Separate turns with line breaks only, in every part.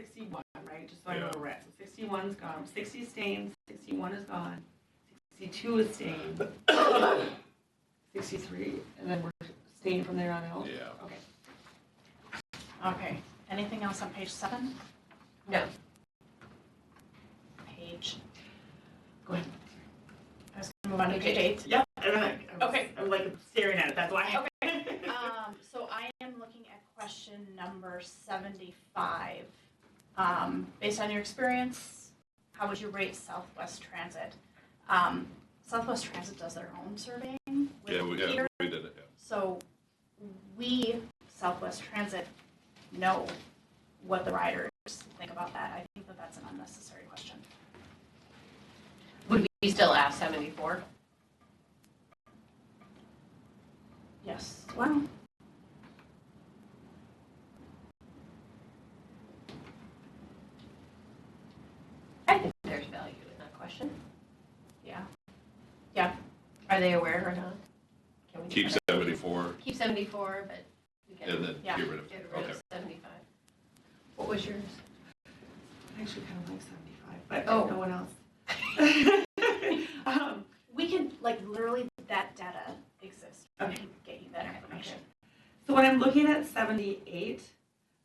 sixty-one, right, just so I know where we're at, so sixty-one's gone, sixty stained, sixty-one is gone, sixty-two is stained, sixty-three, and then we're stained from there on out?
Yeah.
Okay,
Okay, anything else on page seven?
no,
Page,
go ahead.
I was gonna move on to page eight.
Yep, and I'm like, I'm-
Okay.
I'm like staring at it, that's why. Okay.
Um, so I am looking at question number seventy-five. Um, based on your experience, how would you rate Southwest Transit? Um, Southwest Transit does their own surveying
Yeah,
with
we,
Peter.
yeah, we did it, yeah.
So we, Southwest Transit, know what the riders think about that. I think that that's an unnecessary question.
Would we still ask seventy-four?
Yes. Well.
I think there's value in that question.
Yeah.
Are they aware or not? Can we
Keep
kinda
seventy-four
Keep seventy-four, but we
and
can
then
Yeah.
get rid of,
get rid
okay.
of seventy-five. What was yours?
I actually kind of like seventy-five, but
Oh.
no one else. Um,
We can, like, literally, that data exists. We
Okay.
can get you that information.
So when I'm looking at seventy-eight,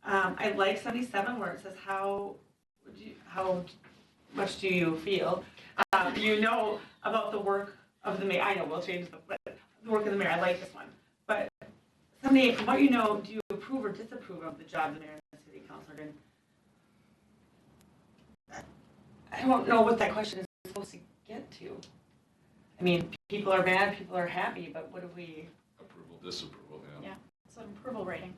um, I like seventy-seven where it says how, would you, how much do you feel? Um, you know about the work of the mayor, I know, we'll change the, but the work of the mayor, I like this one. But seventy-eight, from what you know, do you approve or disapprove of the job the mayor and the city council are doing? I don't know what that question is supposed to get to. I mean, people are mad, people are happy, but what do we?
Approval, disapproval, yeah.
Yeah. It's an approval rating.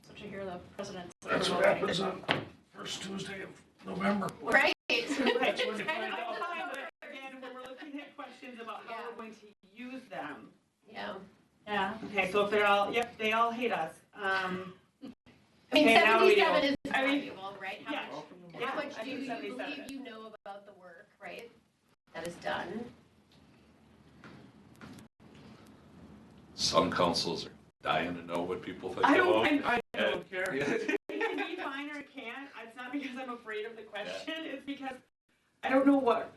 So to hear the president's
That's
approval
what
rating.
happens on first Tuesday of November.
Right.
Right.
It's kind of
I
like
find
the
that, Again, when we're looking at questions about how we're going to use them.
Yeah.
Yeah.
Okay, so if they're all, yep, they all hate us. Um,
I mean,
Okay, now we know.
seventy-seven is
I mean,
valuable, right? How
yeah.
much-
Yeah,
How much
I
do
think
you
77
believe
is-
you know about the work, right? That is done.
Some councils are dying to know what people think
I
about.
don't, I, I don't care.
Yeah.
It can be fine or it can't. It's not because I'm afraid of the question. It's because I don't know what,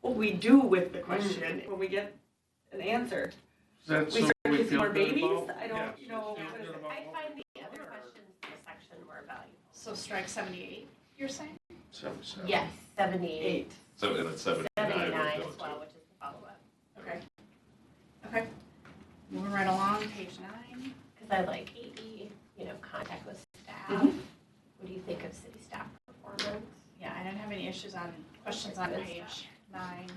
what we do with the question when we get an answer.
Is that
We
so
start
we
kissing
feel
more
good
babies?
about?
I don't,
Yes,
you know,
we feel
what is
good
it?
about
I
what
find
we
the other
are.
questions in this section more valuable.
So strike seventy-eight, you're saying?
Seventy-seven.
Yes, seventy-eight.
Eight.
So, and it's seventy-nine,
Seventy-nine
we'll
as
go
well,
to.
which is the follow-up.
Okay. Okay. Moving right along, page nine.
Because I like AE, you know, contact with staff. What do you think of city staff performance?
Yeah, I didn't have any issues on, questions on
Good
page nine.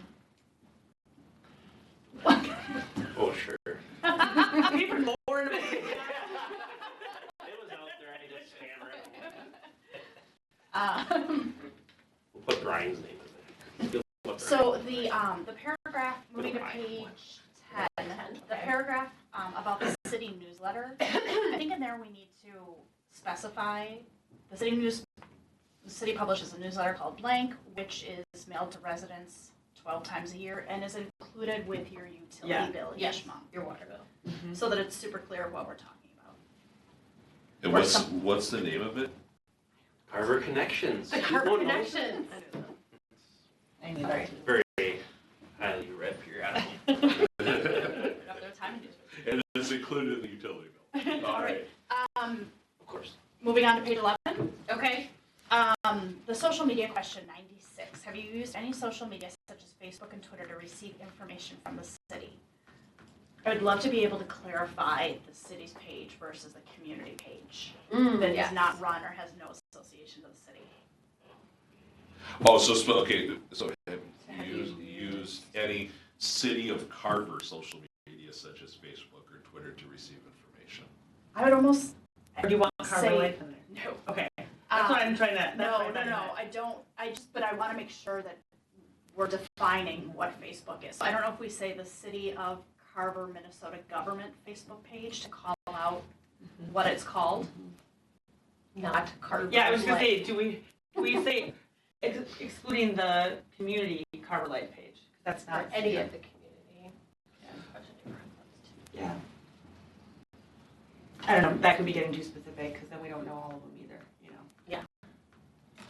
Oh, sure.
Paper Lauren.
It was out there, I just hammer it.
Um,
We'll put Brian's name in there. You'll put
So the, um, the paragraph, moving to
Little eye.
page ten, the
Okay.
paragraph, um, about the city newsletter, I think in there we need to specify, the city news, the city publishes a newsletter called blank, which is mailed to residents twelve times a year and is included with your
Yeah.
utility bill
Yes.
each month,
Your water bill.
so that it's super clear what we're talking about.
And
Or
what's,
some-
what's the name of it?
Carver Connections. You
Carbon
don't know?
connections. I don't know. Sorry.
Very highly read periodical.
And
Put up their time and newsletter.
it's included in the utility bill. All right.
Um,
Of course.
moving on to page eleven.
Okay.
Um, the social media question ninety-six. Have you used any social media such as Facebook and Twitter to receive information from the city? I would love to be able to clarify the city's page versus the community page that is
yes.
not run or has no association to the city.
Oh, so, sp- okay, so have
Have
you used, used any city of Carver social media such as Facebook or Twitter to receive information?
I would almost
Or do you want Carver
Say-
Lake in there?
no. Uh,
Okay, that's what I'm trying to, that's
No,
what I'm
no,
trying
no. I don't. I just, but I want to make sure that we're defining what Facebook is. I don't know if we say the city of Carver, Minnesota government Facebook page to call out what it's called.
Not carbon.
Yeah, I was gonna say, do we, do we say ex- excluding the community Carver Light page? 'Cause That's
Uh,
Or
not.
any of the community.
Yeah. I don't know, that could be getting too specific, because then we don't know all of them